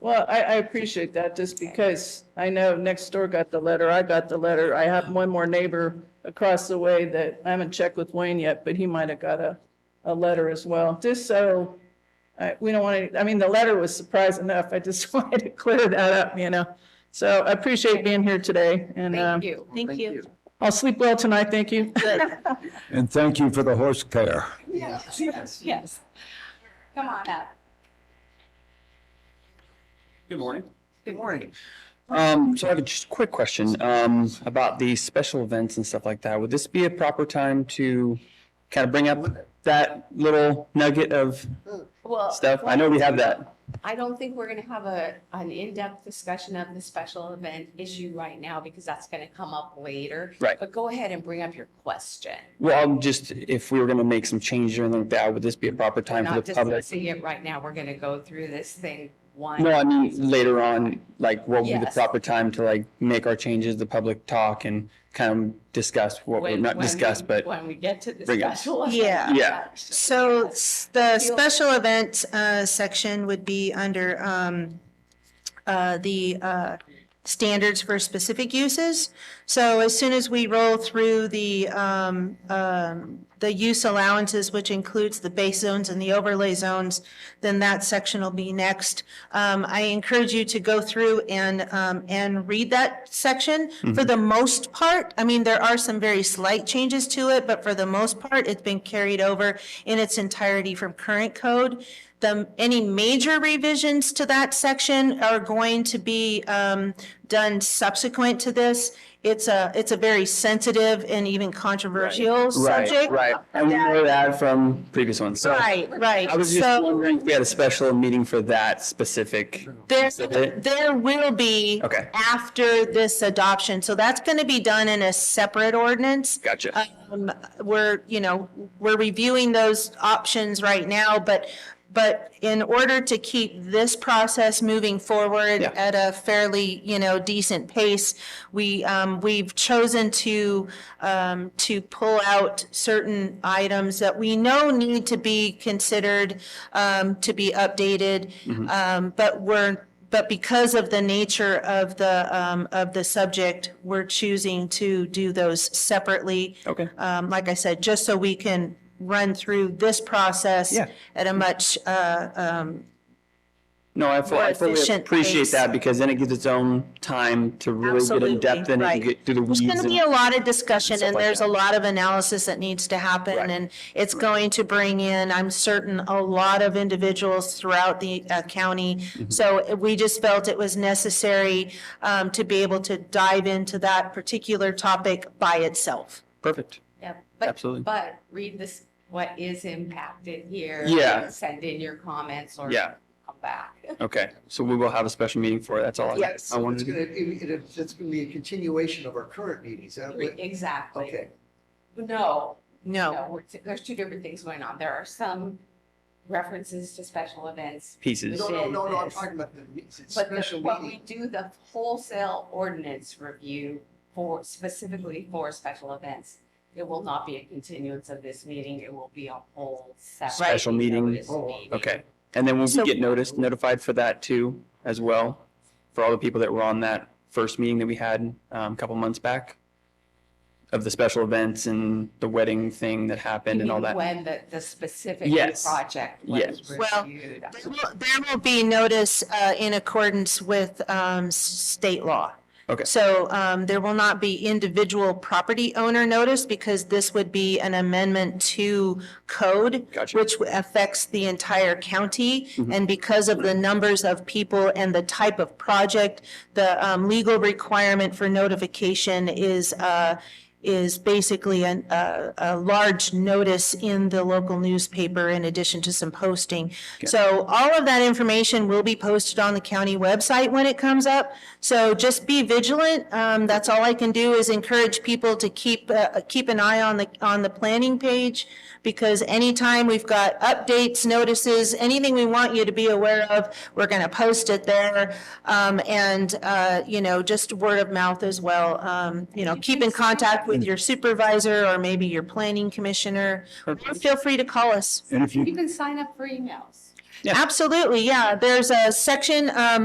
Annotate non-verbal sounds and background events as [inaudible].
Well, I, I appreciate that, just because I know next door got the letter, I got the letter. I have one more neighbor across the way that I haven't checked with Wayne yet, but he might have got a, a letter as well, just so, uh, we don't want to, I mean, the letter was surprise enough. I just [laughs] wanted to clear that up, you know? So I appreciate being here today, and, um, Thank you. Thank you. I'll sleep well tonight, thank you. And thank you for the horse care. Yes. Come on up. Good morning. Good morning. Um, so I have a just quick question, um, about the special events and stuff like that. Would this be a proper time to kind of bring up that little nugget of Well. stuff? I know we have that. I don't think we're gonna have a, an in-depth discussion of the special event issue right now because that's gonna come up later. Right. But go ahead and bring up your question. Well, I'm just, if we were gonna make some changes or anything like that, would this be a proper We're time for not the public? discussing it right now. We're gonna go through this thing one. No, I mean, later on, like, what would be the Yes. proper time to like make our changes, the public talk and kind of discuss what, we're when- not when we- discuss, but, When we get to the Bring it. special. event. Yeah. Yeah. So s- the special event uh, section would be under um, uh, the uh, standards for specific uses. So as soon as we roll through the, um, um, the use allowances, which includes the base zones and the overlay zones, then that section will be next. Um, I encourage you to go through and, um, and read that section. For the most part, I mean, there are some very slight changes to it, but for the most part, it's been carried over in its entirety from current code. The, any major revisions to that section are going to be, um, done subsequent to this. It's a, it's a very sensitive and even controversial right, subject. right. And we know that from previous ones, so. Right, right. I was just So- wondering if we had a special meeting for that specific. There, Exhibit? there will be. Okay. After this adoption, so that's gonna be done in a separate ordinance. Gotcha. Um, we're, you know, we're reviewing those options right now, but, but in order to keep this process moving forward Yeah. at a fairly, you know, decent pace, we, um, we've chosen to, um, to pull out certain items that we know need to be considered, um, to be updated. Um, but we're, but because of the nature of the, um, of the subject, we're choosing to do those separately. Okay. Um, like I said, just so we can run through this process Yeah. at a much, uh, No, I fu- I more fully efficient appreciate pace. that because then it gives its own time to really get in depth Absolutely, and it can right. get through the weeds. There's going to be and- a lot of discussion stuff and like there's that. a lot of analysis that needs to Right. happen. And it's going to bring in, I'm certain, a lot of individuals throughout the uh, county. Mm-hmm. So uh, we just felt it was necessary um, to be able to dive into that particular topic by itself. Perfect. Yeah, but- Absolutely. But read this, what is impacted here. Yeah. and Send in your comments or. Yeah. Come back. Okay. So we will have a special meeting for it. That's all I. Yes. I wanted It's to gonna, it, it, it's gonna be a continuation of our current meetings, is that what- Exactly. okay. No, No. no, we're- there's two different things going on. There are some references to special events. pieces. No, no, no, no, I'm talking about the, me- it's But the- special but we meeting. do the wholesale ordinance review for, specifically for special events. It will not be a continuance of this meeting. It will be a whole separate. Special meeting. notice Oh, meeting. Okay. And then will we So- get noticed, notified for that too, as well? For all the people that were on that first meeting that we had um, a couple months back? Of the special events and the wedding thing that happened and all You mean that. When the, the specific Yes. project was Yes. Well, reviewed. There will- There will be notice uh, in accordance with um, s- state law. Okay. So um, there will not be individual property owner notice because this would be an amendment to code, Gotcha. Mm-hmm. which affects the entire county. And because of the numbers of people and the type of project, the um, legal requirement for notification is, uh, is basically an- a, a large notice in the local newspaper in addition to some posting. So all of that information will be posted on the county website when it comes up. So just be vigilant. Um, that's all I can do is encourage people to keep, uh, keep an eye on the, on the planning page. Because anytime we've got updates, notices, anything we want you to be aware of, we're gonna post it there. Um, and, uh, you know, just word of mouth as well. Um, you know, keep in contact with your supervisor or maybe your planning commissioner. Feel free to call us. And if you You can sign up for emails. Yeah. Absolutely, yeah. There's a section um,